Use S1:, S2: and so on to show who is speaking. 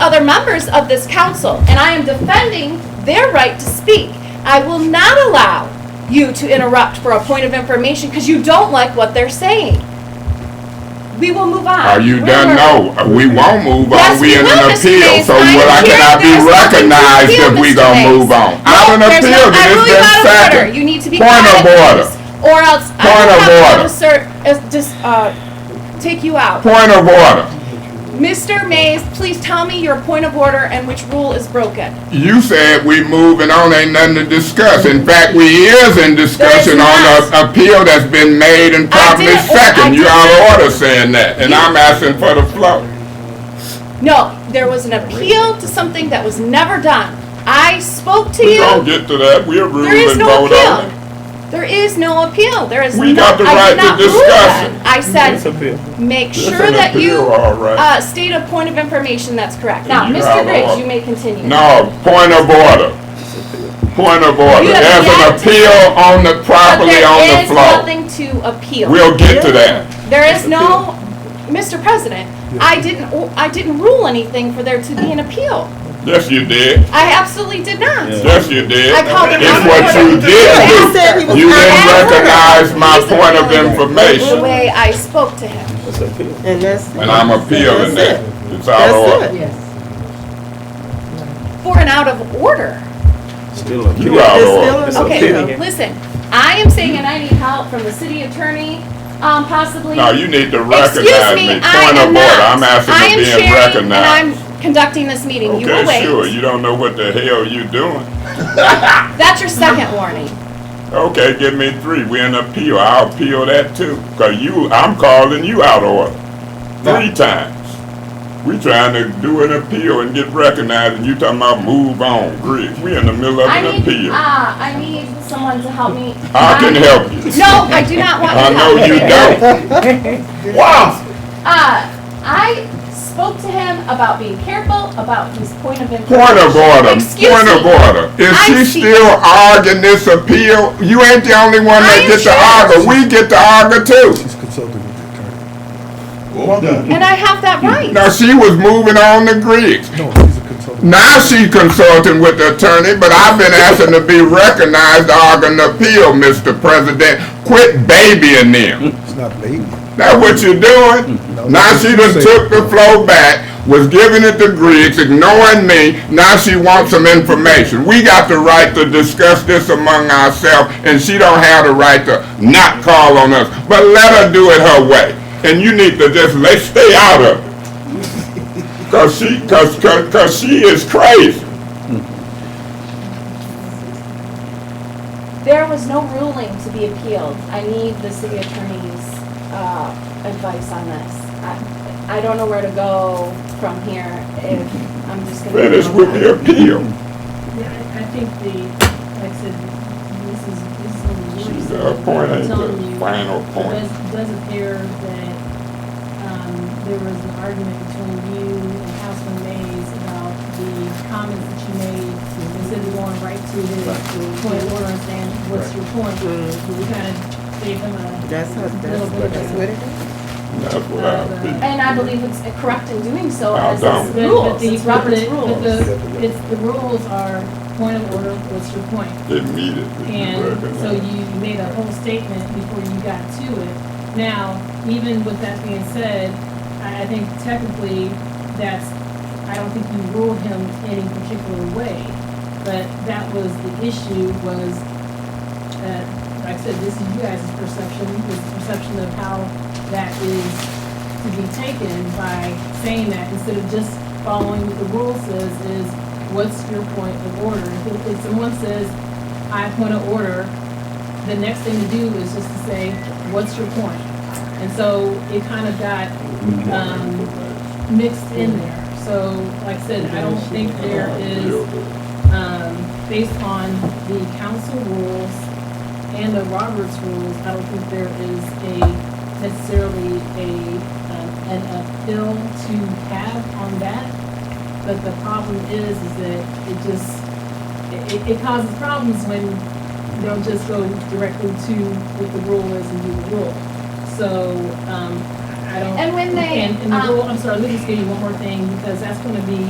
S1: other members of this council, and I am defending their right to speak. I will not allow you to interrupt for a point of information because you don't like what they're saying. We will move on.
S2: Are you done?
S1: We're-
S2: No, we won't move on.
S1: Yes,
S2: We
S1: we
S2: in an
S1: will, Mr.
S2: appeal,
S1: Mays.
S2: so
S1: I
S2: what I
S1: am here.
S2: cannot be
S1: There's nothing to
S2: recognized
S1: appeal,
S2: if we
S1: Mr.
S2: gonna
S1: Mays.
S2: move on.
S1: No,
S2: I'm an
S1: there's
S2: appeal
S1: not-
S2: to
S1: I
S2: this
S1: rule you
S2: just
S1: out of order.
S2: second.
S1: You need to be
S2: Point
S1: quiet,
S2: of order.
S1: please, Or else I
S2: Point
S1: will
S2: of
S1: have to
S2: order.
S1: assert, as- just, uh, take you out.
S2: Point of order.
S1: Mr. Mays, please tell me your point of order and which rule is broken.
S2: You said we moving on, ain't nothing to discuss. In fact, we is in discussion on
S1: There's
S2: a appeal that's been made and properly
S1: didn't- I
S2: second. You
S1: did
S2: out
S1: not-
S2: of order saying that, and
S1: You-
S2: I'm asking for the floor.
S1: No, there was an appeal to something that was never done. I spoke to
S2: We gonna
S1: you.
S2: get to that. We'll rule
S1: There is
S2: and
S1: no
S2: vote on
S1: appeal.
S2: it.
S1: There is no appeal. There is no.
S2: We got the
S1: I did
S2: right to
S1: not rule
S2: discuss
S1: that.
S2: it.
S1: I
S3: That's
S1: said,
S3: appeal.
S1: make
S2: It's
S1: sure
S2: an
S1: that you,
S2: appeal, all right.
S1: uh, state a point of information that's correct. Now,
S2: You
S1: Mr.
S2: have
S1: Griggs,
S2: all-
S1: you may continue.
S2: No, point of order. Point of order.
S1: You have
S2: There's an
S1: yet to-
S2: appeal on the,
S1: But
S2: properly on the
S1: There
S2: floor.
S1: is nothing to appeal.
S2: We'll get to that.
S1: There is no, Mr. President, I didn't, I didn't rule anything for there to be an appeal.
S2: Yes, you did.
S1: I absolutely did not.
S2: Yes, you did.
S1: I called it
S2: It's
S1: out.
S2: what you
S4: He
S2: did do.
S4: said he was
S2: You didn't
S4: not,
S2: recognize my point of
S1: The
S2: information,
S1: way I spoke to him.
S3: That's appeal.
S4: and that's.
S2: and I'm appealing that.
S4: That's it.
S2: It's out of
S4: That's
S2: order.
S4: it.
S1: For an out of order.
S3: Still appeal.
S2: You out
S4: It's
S2: of
S4: still
S2: order.
S4: It's
S1: Okay,
S4: okay.
S1: listen, I am saying, and I need help from the city attorney, um, possibly.
S2: No, you need to
S1: Excuse
S2: recognize
S1: me,
S2: me.
S1: I
S2: Point of
S1: am
S2: order.
S1: not.
S2: I'm
S1: I
S2: asking
S1: am
S2: to being
S1: sharing, and
S2: recognized.
S1: I'm conducting this meeting. You will
S2: Okay, sure.
S1: wait.
S2: You don't know what the hell you doing.
S1: That's your second warning.
S2: Okay, give me three. We in appeal. I'll appeal that too. Cause you, I'm calling you out of order. Three times. We trying to do an appeal and get recognized and you talking about move on, Griggs. We in the middle of
S1: I
S2: an
S1: need,
S2: appeal.
S1: ah, I need someone to help me. Um,
S2: I can help you.
S1: No, I do not want your
S2: I
S1: help.
S2: know you don't. Wow,
S1: Uh, I spoke to him about being careful, about his point of information.
S2: point of order,
S1: Excuse
S2: point of
S1: me.
S2: order. Is
S1: I'm
S2: she
S1: speaking.
S2: still arguing this appeal? You ain't the only
S1: I
S2: one that
S1: am
S2: get to
S1: sure.
S2: argue. We get to argue too.
S5: He's consulting with the attorney.
S1: And I have that right.
S2: Now, she was moving on to Griggs.
S5: No, he's a consultant.
S2: Now she consulting with the attorney, but I've been asking to be recognized, arguing appeal, Mr. President. Quit babying them.
S5: He's not baby.
S2: That's what you're doing. Now she done took the flow back, was giving it to Griggs, ignoring me. Now she wants some information. We got the right to discuss this among ourselves, and she don't have the right to not call on us. But let her do it her way. And you need to just let stay out of it. Cause she, cause, cause, cause she is crazy.
S1: There was no ruling to be appealed. I need the city attorney's, uh, advice on this. I, I don't know where to go from here if I'm just gonna.
S2: Finish with the appeal.
S6: Yeah, I I think the, like I said, this is, this is a little.
S2: She's got a point, ain't
S6: Telling
S2: the
S6: you,
S2: final
S6: it
S2: point.
S6: does- It does appear that, um, there was an argument between you and Councilman Mays about the comments that you made, instead of going right to his point of order and saying, what's your point? We kind of gave him a.
S4: That's how,
S6: little
S4: that's
S6: bit
S4: what,
S6: of
S4: that's
S6: a-
S4: what it is.
S2: That's what I feel.
S1: And I believe it's correct in doing so
S2: Well
S1: as
S2: done.
S1: it's
S6: But- But
S1: rules,
S6: the,
S1: it's
S6: but
S1: Robert's
S6: the, but
S1: rules.
S6: the, it's, the rules are point of order, what's your point?
S2: immediately.
S6: And so you made a whole statement before you got to it. Now, even with that being said, I, I think technically that's, I don't think you ruled him any particular way. But that was the issue was, uh, like I said, this is you guys' perception, this is perception of how that is to be taken by saying that instead of just following what the rule says is, what's your point of order? If- If someone says, I point of order, the next thing to do is just to say, what's your point? And so it kind of got, um, mixed in there. So, like I said, I don't think there is, um, based on the council rules and the Roberts rules, I don't think there is a necessarily a, um, an appeal to have on that. But the problem is, is that it just, it- it, it causes problems when they'll just go directly to what the rule is and do the rule. So, um, I don't.
S1: And when they,
S6: And, and the
S1: um,
S6: rule, I'm sorry, let me just give you one more thing, because that's gonna be